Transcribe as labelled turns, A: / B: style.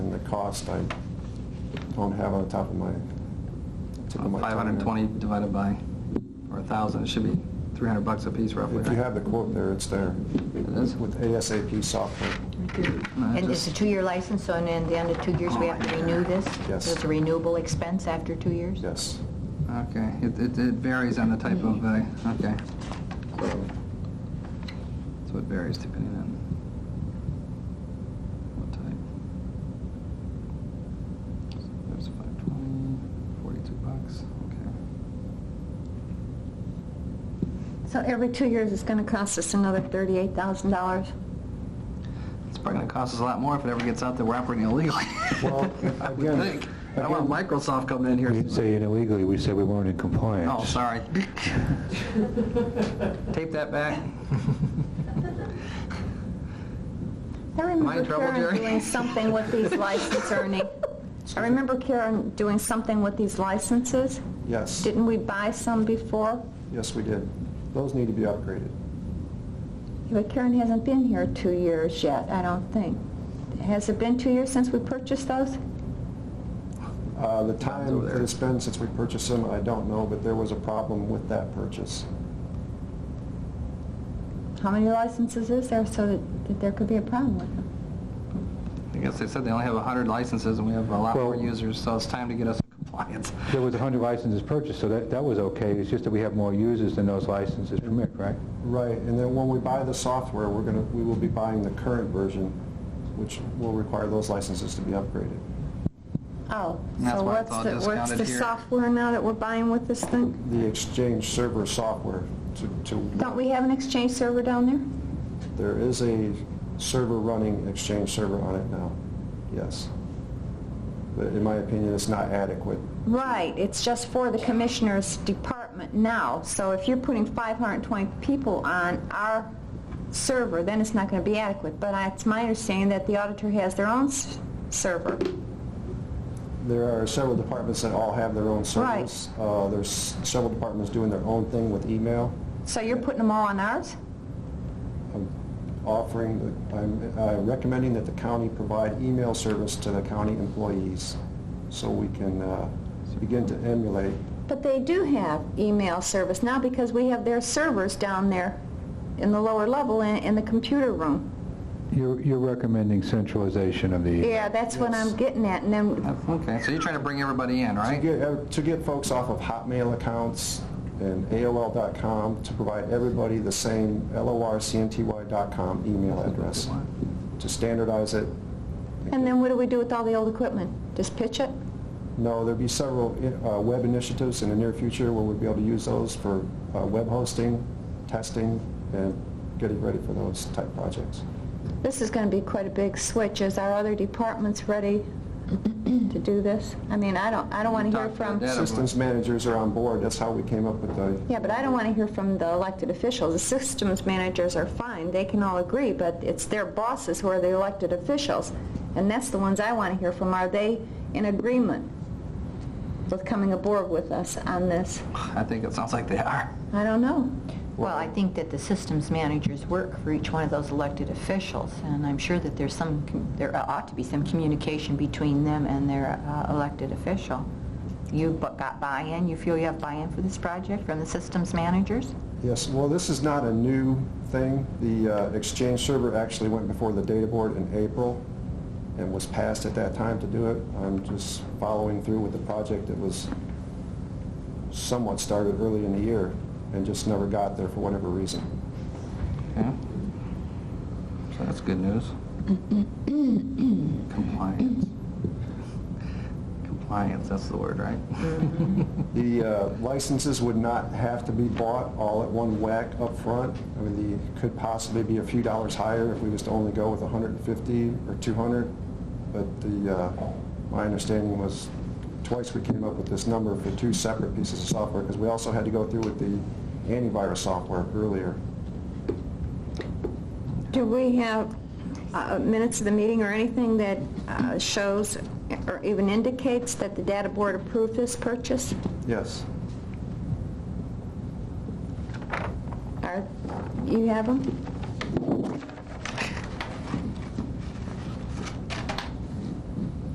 A: cost, I don't have on the top of my, tip of my tongue.
B: 520 divided by, or 1,000, it should be 300 bucks a piece roughly.
A: If you have the quote there, it's there,
B: It is?
A: with ASAP software.
B: No, it
C: And it's
B: just-
C: a two-year license, so in the end of two years, we have to renew this?
A: Yes.
C: So it's a renewable expense after two years?
A: Yes.
B: Okay, it, it it varies on the type of, uh, okay. So it varies depending on what type. So There's 520, 42 bucks, okay.
D: So every two years, it's going to cost us another $38,000?
B: It's probably gonna cost us a lot more if it ever gets out that we're operating illegally.
A: Well,
B: I would
A: again-
B: think. I don't want Microsoft coming in
E: We
B: here.
E: didn't say it illegally, we said we weren't in compliance.
B: Oh, sorry. Tape that back.
D: I remember
B: in trouble,
D: Karen
B: Jerry?
D: doing something with these licenses, Ernie. I remember Karen doing something with these licenses.
A: Yes,
D: Didn't we buy some before?
A: yes, we did. Those need to be upgraded.
D: But Karen hasn't been here two years yet, I don't think. Has it been two years since we purchased those?
A: Uh, The
B: over
A: time
B: there.
A: that it's been since we purchased them, I don't know, but there was a problem with that purchase.
D: How many licenses is there so that- that there could be a problem with them?
B: I guess they said they only have 100 licenses and we have a lot more
E: Well-
B: users, so it's time to get us in compliance.
E: There was 100 licenses purchased, so that, that was okay, it's just that we have more users than those licenses permit, right?
A: Right, and then when we buy the software, we're going to, we will be buying the current version, which will require those licenses to be upgraded.
D: Oh,
B: And that's
D: so
B: why it's
D: what's
B: all
D: the, what's
B: discounted
D: the
B: here.
D: software now that we're buying with this thing?
A: The Exchange server software to,
D: Don't
A: to,
D: we have an Exchange server down there?
A: there is a server running Exchange server on it now, yes. But in my opinion, it's not adequate.
D: Right, it's just for the Commissioner's Department now. So if you're putting 520 people on our server, then it's not going to be adequate. But I- it's my understanding that the auditor has their own s- server.
A: There are several departments that all have their own
D: Right.
A: servers. Uh, There's several departments doing their own thing with email.
D: So you're putting them all on ours?
A: I'm offering, the- I'm uh, recommending that the county provide email service to the county employees so we can uh, begin to emulate.
D: But they do have email service now because we have their servers down there in the lower level in, in the computer room.
E: You're, you're recommending centralization of the...
D: Yeah, that's what
A: Yes.
D: I'm getting at. And then,
B: That's- Okay, so you're trying to bring everybody in,
A: To
B: right?
A: get, uh, to get folks off of Hotmail accounts and AOL.com, to provide everybody the same LORCNTY.com email address, to standardize it.
D: and then what do we do with all the old equipment? Just pitch it?
A: No, there'll be several uh, web initiatives in the near future where we'll be able to use those for uh, web hosting, testing, and getting ready for those type projects.
D: This is going to be quite a big switch. Is our other departments ready to do this? I mean, I don't, I don't want to hear
B: Talk about
D: from,
B: that.
A: Systems managers are on board, that's how we came up with the...
D: yeah, but I don't want to hear from the elected officials. The systems managers are fine, they can all agree, but it's their bosses who are the elected officials. And that's the ones I want to hear from. Are they in agreement with coming aboard with us on this?
B: I think it sounds like they are.
D: I don't know.
C: Well, I think that the systems managers work for each one of those elected officials, and I'm sure that there's some, com- there ought to be some communication between them and their uh, elected official. You bu- got buy-in, you feel you have buy-in for this project from the systems managers?
A: Yes, well, this is not a new thing. The uh, Exchange server actually went before the data board in April and was passed at that time to do it. I'm just following through with the project that was somewhat started early in the year and just never got there for whatever reason.
B: Okay. So that's good news. Compliance. Compliance, that's the word, right?
A: The uh, licenses would not have to be bought all at one whack up front. I mean, the, could possibly be a few dollars higher if we was to only go with 150 or 200, but the, uh, my understanding was twice we came up with this number for two separate pieces of software, because we also had to go through with the antivirus software earlier.
D: Do we have uh, minutes of the meeting or anything that uh, shows or even indicates that the data board approved this purchase?
A: Yes.
D: Are- You have them?